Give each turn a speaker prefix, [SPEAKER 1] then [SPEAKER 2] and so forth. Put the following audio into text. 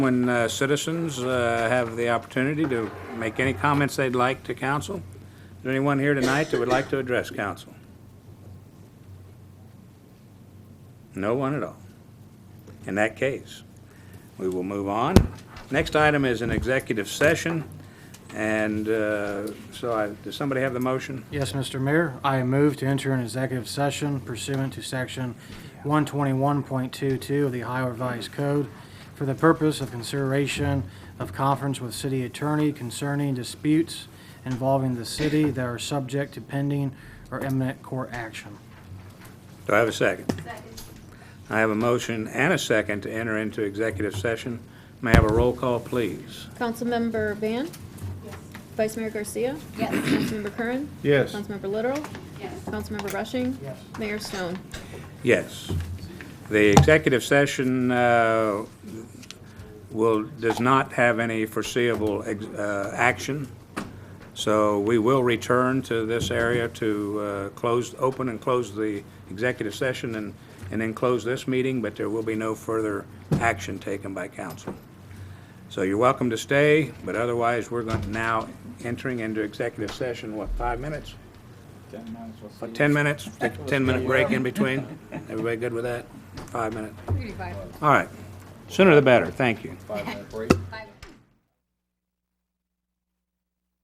[SPEAKER 1] When uh, citizens uh, have the opportunity to make any comments they'd like to council, is there anyone here tonight that would like to address council? No one at all. In that case, we will move on. Next item is an executive session, and uh, so I, does somebody have the motion?
[SPEAKER 2] Yes, Mr. Mayor, I move to enter an executive session pursuant to section 121.22 of the Ohio Revised Code for the purpose of consideration of conference with city attorney concerning disputes involving the city that are subject to pending or imminent court action.
[SPEAKER 1] Do I have a second? Second. I have a motion and a second to enter into executive session. May I have a roll call, please?
[SPEAKER 3] Councilmember Van? Vice Mayor Garcia? Yes. Councilmember Curran?
[SPEAKER 1] Yes.
[SPEAKER 3] Councilmember Literal? Yes. Councilmember Rushing? Yes. Mayor Stone?
[SPEAKER 1] Yes. The executive session uh, will, does not have any foreseeable ex- uh, action, so we will return to this area to uh, close, open and close the executive session and, and then close this meeting, but there will be no further action taken by council. So you're welcome to stay, but otherwise, we're going, now entering into executive session, what, five minutes? About 10 minutes, take a 10-minute break in between. Everybody good with that? Five minute? All right. Sooner the better, thank you.
[SPEAKER 4] Five-minute break.